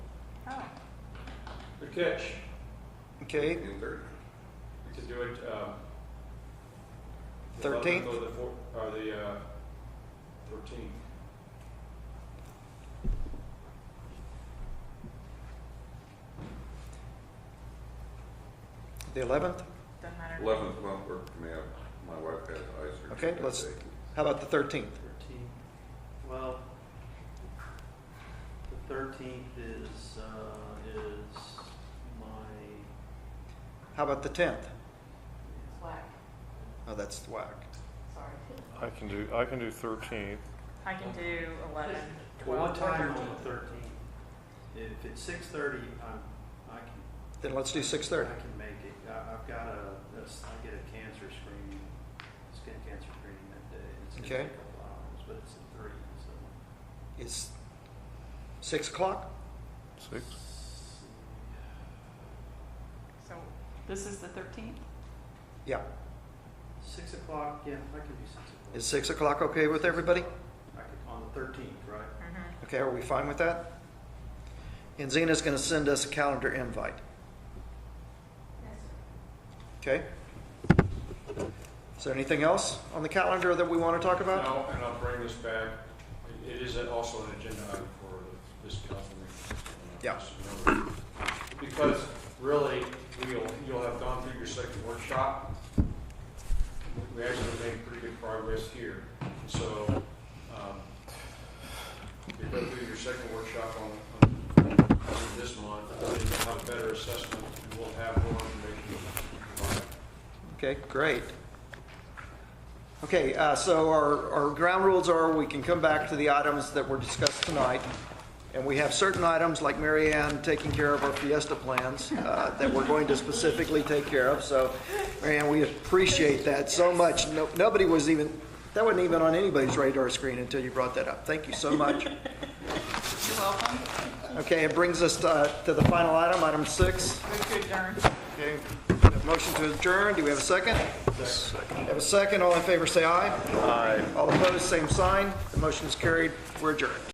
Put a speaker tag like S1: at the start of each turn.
S1: Good catch.
S2: Okay,
S3: June third?
S1: To do it, um. the
S2: 13th?
S1: 11th Or the four, or the, uh, thirteenth.
S2: the eleventh?
S4: Doesn't matter.
S3: Eleventh month work for me, I- my wife has eye surgery.
S2: Okay,
S3: that
S2: let's-
S3: day.
S2: How about the thirteenth?
S5: Thirteenth, well, the thirteenth is, uh, is my,
S2: How about the tenth?
S4: It's whack.
S2: Oh, that's whack.
S4: Sorry.
S6: I can do, I can do thirteenth.
S4: I can do eleven.
S5: well, what
S4: or
S5: time on
S4: 13?
S5: the thirteenth? If it's six thirty, I'm, I can,
S2: Then let's do six
S5: I
S2: thirty.
S5: can make it, I, I've got a, that's, I get a cancer screening, skin cancer screening that day. It's gonna
S2: Okay.
S5: take a couple hours, but it's at three, so.
S2: Is six o'clock?
S6: Six.
S4: So this is the thirteenth?
S2: Yeah.
S5: Six o'clock, yeah, I can do six o'clock.
S2: Is six o'clock okay with everybody?
S5: I could, on the thirteenth, right?
S4: Mm-hmm.
S2: Okay, are we fine with that? And Zena's gonna send us a calendar invite. Okay? Is there anything else on the calendar that we wanna talk about?
S1: Now, and I'll bring this back, it it is also an agenda item for this council meeting.
S2: Yeah.
S1: Because really, we'll, you'll have gone through your second workshop. We actually made pretty good progress here, so, um, you go through your second workshop on, on on this month, and then you'll have a better assessment, and we'll have more information.
S2: Okay, great. Okay, uh, so our, our ground rules are we can come back to the items that were discussed tonight. And we have certain items like Mary Ann taking care of our Fiesta plans uh, that we're going to specifically take care of. So, Mary Ann, we appreciate that so much. No, nobody was even, that wasn't even on anybody's radar screen until you brought that up. Thank you so much.
S4: You're welcome.
S2: Okay, it brings us uh, to the final item, item six.
S4: Move to adjourn.
S2: Okay, we have a motion to adjourn, do we have a second? Second. Have a second, all in favor say aye. Aye. All opposed, same sign, the motion is carried, we're adjourned.